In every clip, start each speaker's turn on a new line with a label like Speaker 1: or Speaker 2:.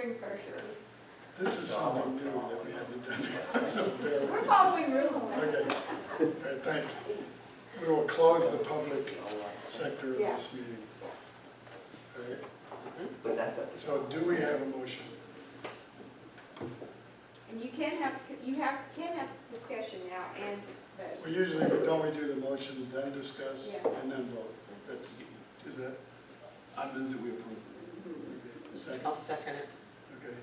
Speaker 1: reserve.
Speaker 2: This is something new that we haven't done, so bear with
Speaker 1: We're
Speaker 2: me.
Speaker 1: following rules.
Speaker 2: Okay, all right, thanks. We will close the public sector of this meeting. All right,
Speaker 3: But that's up to
Speaker 2: so do we have a motion?
Speaker 1: And you can have, you have, can have discussion now and vote.
Speaker 2: We usually, don't we do the motion, then discuss,
Speaker 1: Yeah.
Speaker 2: and then vote? That's, is that,
Speaker 4: I move that we approve.
Speaker 2: second,
Speaker 5: I'll second it.
Speaker 2: okay?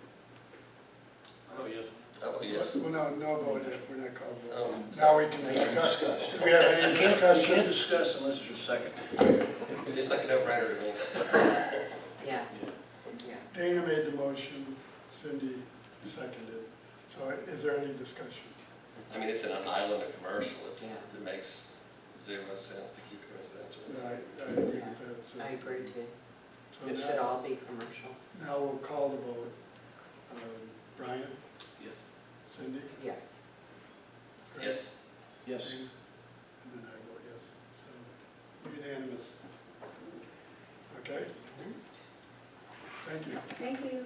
Speaker 6: Oh, yes.
Speaker 7: Oh, yes.
Speaker 2: Well, no, no vote, yet. we're not called vote.
Speaker 7: Um,
Speaker 2: Now we can discuss.
Speaker 4: Discuss.
Speaker 2: Do we have any
Speaker 4: You can't
Speaker 2: discussion?
Speaker 4: discuss unless there's a second.
Speaker 7: Seems like a no-brainer to me.
Speaker 5: Yeah,
Speaker 6: Yeah.
Speaker 5: yeah.
Speaker 2: Dana made the motion, Cindy seconded. So is there any discussion?
Speaker 7: I mean, it's in an island of commercial, it's,
Speaker 5: Yeah.
Speaker 7: it makes zero sense to keep it residential.
Speaker 2: No, I, I agree with that, so.
Speaker 5: I agree too.
Speaker 2: so
Speaker 5: It should
Speaker 2: now-
Speaker 5: all be commercial.
Speaker 2: Now we'll call the vote. Um, Brian,
Speaker 6: Yes.
Speaker 2: Cindy?
Speaker 5: Yes.
Speaker 2: Greg,
Speaker 7: Yes,
Speaker 4: Yes.
Speaker 2: Dana, And then I vote yes, so unanimous. Okay, thank you.
Speaker 1: Thank you.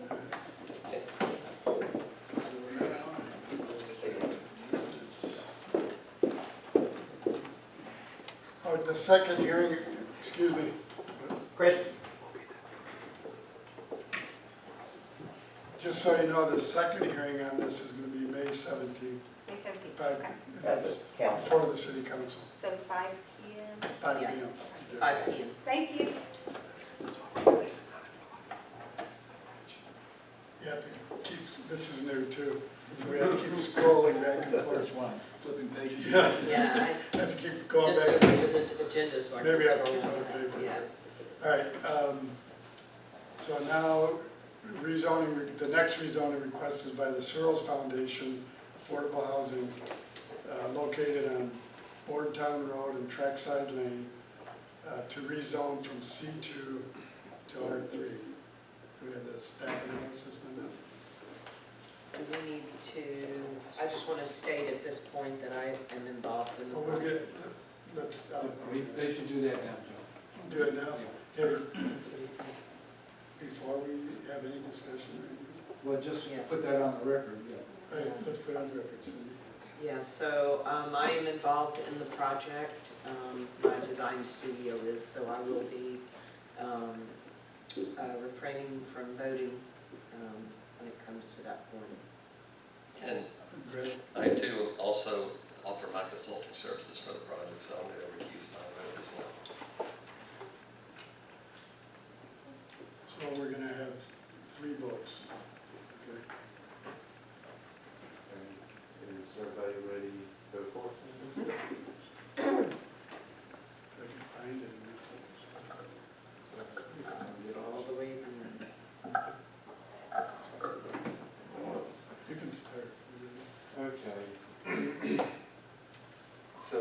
Speaker 2: So we're now- Oh, the second hearing, excuse me,
Speaker 3: Chris,
Speaker 2: just so you know, the second hearing on this is gonna be May seventeenth,
Speaker 1: May seventeenth.
Speaker 2: five,
Speaker 1: Okay.
Speaker 2: and
Speaker 3: at
Speaker 2: that's
Speaker 3: the council.
Speaker 2: before the city council,
Speaker 1: So five P M.
Speaker 2: five
Speaker 5: Yeah.
Speaker 2: P M.
Speaker 5: Five P M.
Speaker 1: Thank you.
Speaker 2: You have to keep, this is new too, so we have to keep scrolling back and forth.
Speaker 4: Which one? Flipping pages?
Speaker 2: Yeah.
Speaker 5: Yeah,
Speaker 2: Have to keep
Speaker 5: I
Speaker 2: going
Speaker 5: just
Speaker 2: back.
Speaker 5: looked into the agendas. so I can
Speaker 2: Maybe I'll
Speaker 5: scroll
Speaker 2: keep
Speaker 5: on
Speaker 2: other
Speaker 5: that.
Speaker 2: paper.
Speaker 5: Yeah.
Speaker 2: All right, um, so now rezoning, the next rezoning request is by the Searles Foundation Affordable Housing uh, located on Boardtown Road and Trackside Lane uh, to rezone from C2 to R3. Do we have the staff analysis on
Speaker 5: Do we need to, I just want to state at this point that I am involved in
Speaker 2: that?
Speaker 5: the
Speaker 2: Well, we'll
Speaker 5: project.
Speaker 2: get, Oh, let's, uh,
Speaker 6: We, they should do that now,
Speaker 2: do it now,
Speaker 6: Joe. Yeah.
Speaker 2: Here,
Speaker 5: That's what he said.
Speaker 2: before we have any discussion or anything.
Speaker 6: Well, just
Speaker 5: Yeah.
Speaker 6: put that on the record, yeah.
Speaker 2: All right, let's put it on the record, Cindy.
Speaker 5: Yeah, so um, I am involved in the project. Um, My design studio is, so I will be um, uh, refraining from voting um, when it comes to that point.
Speaker 7: and
Speaker 2: Greg?
Speaker 7: I too also offer my consulting services for the project, so I'm gonna recuse my vote as well.
Speaker 2: So we're gonna have three votes. Okay.
Speaker 8: Is everybody ready to go forth?
Speaker 2: If I can find it in this
Speaker 5: It's all the way through.
Speaker 2: thing. You can start.
Speaker 8: Okay. So,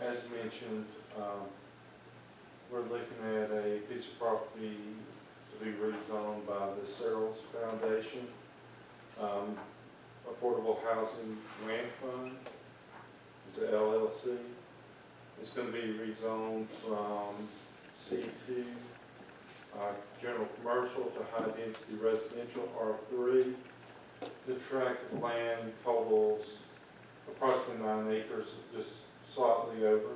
Speaker 8: as mentioned, um, we're looking at a piece of property to be rezoned by the Searles Foundation, um, Affordable Housing Land Fund, it's a LLC. It's gonna be rezoned from C two, uh, general commercial to high density residential R three. The tract of land totals approximately nine acres, just slightly over.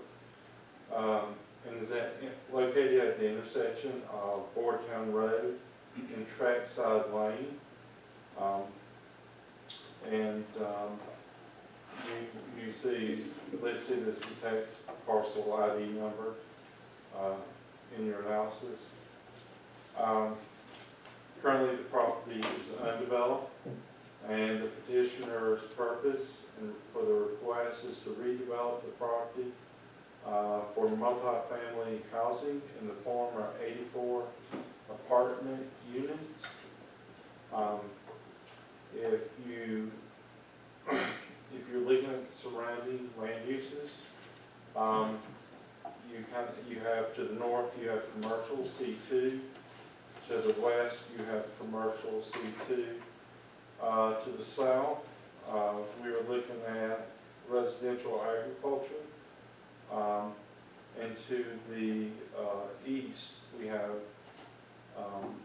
Speaker 8: Um, And is that in- located at the intersection of Boardtown Road and Trackside Lane. Um, And um, you, you see listed as the tax parcel ID number uh, in your analysis. Um, Currently, the property is undeveloped. And the petitioner's purpose and for the request is to redevelop the property uh, for multifamily housing in the form of 84 apartment units. Um, If you, if you're looking at surrounding land uses, um, you kind of, you have to the north, you have commercial C2. To the west, you have commercial C2. Uh, To the south, uh, we are looking at residential agriculture. Um, And to the uh, east, we have um,